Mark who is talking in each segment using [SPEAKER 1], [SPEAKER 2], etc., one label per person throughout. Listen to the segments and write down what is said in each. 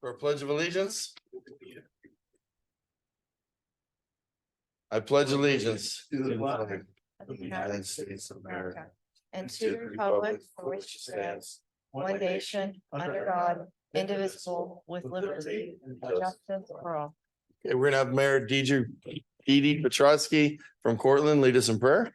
[SPEAKER 1] for a pledge of allegiance? I pledge allegiance.
[SPEAKER 2] To the flag
[SPEAKER 1] of the United States of America
[SPEAKER 3] And to the republic for which it stands, one nation, under God, indivisible, with liberty and justice for all.
[SPEAKER 1] Okay, we're gonna have Mayor DJ Dee Dee Petrowski from Cortland lead us in prayer.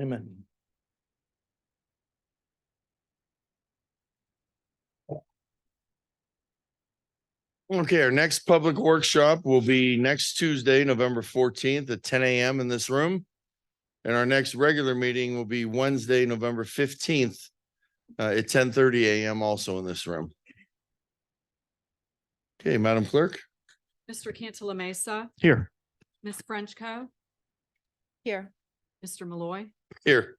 [SPEAKER 1] Amen. Okay, our next public workshop will be next Tuesday, November fourteenth at ten AM in this room. And our next regular meeting will be Wednesday, November fifteenth uh, at ten thirty AM also in this room. Okay, Madam Clerk.
[SPEAKER 4] Mr. Cantala Mesa,
[SPEAKER 1] Here.
[SPEAKER 4] Ms. Frenchco,
[SPEAKER 3] Here.
[SPEAKER 4] Mr. Malloy.
[SPEAKER 1] Here.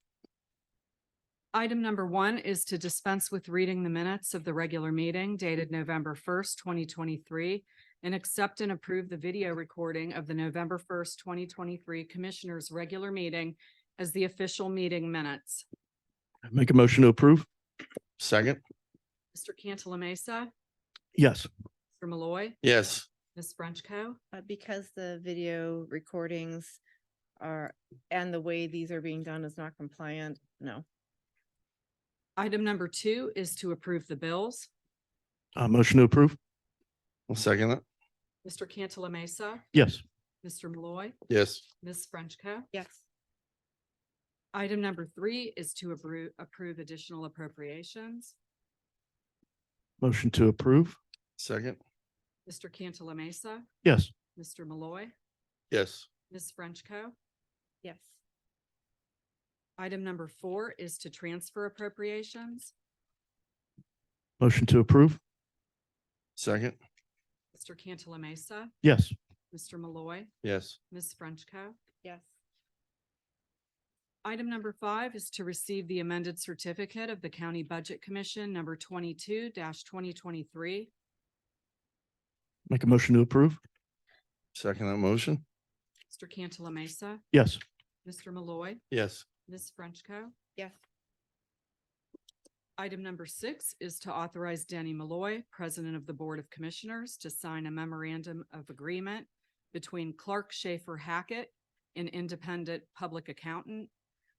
[SPEAKER 4] Item number one is to dispense with reading the minutes of the regular meeting dated November first, twenty twenty-three, and accept and approve the video recording of the November first, twenty twenty-three Commissioners' Regular Meeting as the official meeting minutes.
[SPEAKER 5] Make a motion to approve?
[SPEAKER 1] Second.
[SPEAKER 4] Mr. Cantala Mesa,
[SPEAKER 5] Yes.
[SPEAKER 4] Mr. Malloy,
[SPEAKER 1] Yes.
[SPEAKER 4] Ms. Frenchco.
[SPEAKER 3] Uh, because the video recordings are, and the way these are being done is not compliant, no.
[SPEAKER 4] Item number two is to approve the bills.
[SPEAKER 5] Uh, motion to approve?
[SPEAKER 1] I'll second that.
[SPEAKER 4] Mr. Cantala Mesa,
[SPEAKER 5] Yes.
[SPEAKER 4] Mr. Malloy,
[SPEAKER 1] Yes.
[SPEAKER 4] Ms. Frenchco.
[SPEAKER 3] Yes.
[SPEAKER 4] Item number three is to approve, approve additional appropriations.
[SPEAKER 5] Motion to approve?
[SPEAKER 1] Second.
[SPEAKER 4] Mr. Cantala Mesa,
[SPEAKER 5] Yes.
[SPEAKER 4] Mr. Malloy,
[SPEAKER 1] Yes.
[SPEAKER 4] Ms. Frenchco.
[SPEAKER 3] Yes.
[SPEAKER 4] Item number four is to transfer appropriations.
[SPEAKER 5] Motion to approve?
[SPEAKER 1] Second.
[SPEAKER 4] Mr. Cantala Mesa,
[SPEAKER 5] Yes.
[SPEAKER 4] Mr. Malloy,
[SPEAKER 1] Yes.
[SPEAKER 4] Ms. Frenchco.
[SPEAKER 3] Yes.
[SPEAKER 4] Item number five is to receive the amended certificate of the County Budget Commission number twenty-two twenty twenty-three.
[SPEAKER 5] Make a motion to approve?
[SPEAKER 1] Second that motion.
[SPEAKER 4] Mr. Cantala Mesa,
[SPEAKER 5] Yes.
[SPEAKER 4] Mr. Malloy,
[SPEAKER 1] Yes.
[SPEAKER 4] Ms. Frenchco.
[SPEAKER 3] Yes.
[SPEAKER 4] Item number six is to authorize Danny Malloy, President of the Board of Commissioners, to sign a memorandum of agreement between Clark Schaefer Hackett, an independent public accountant,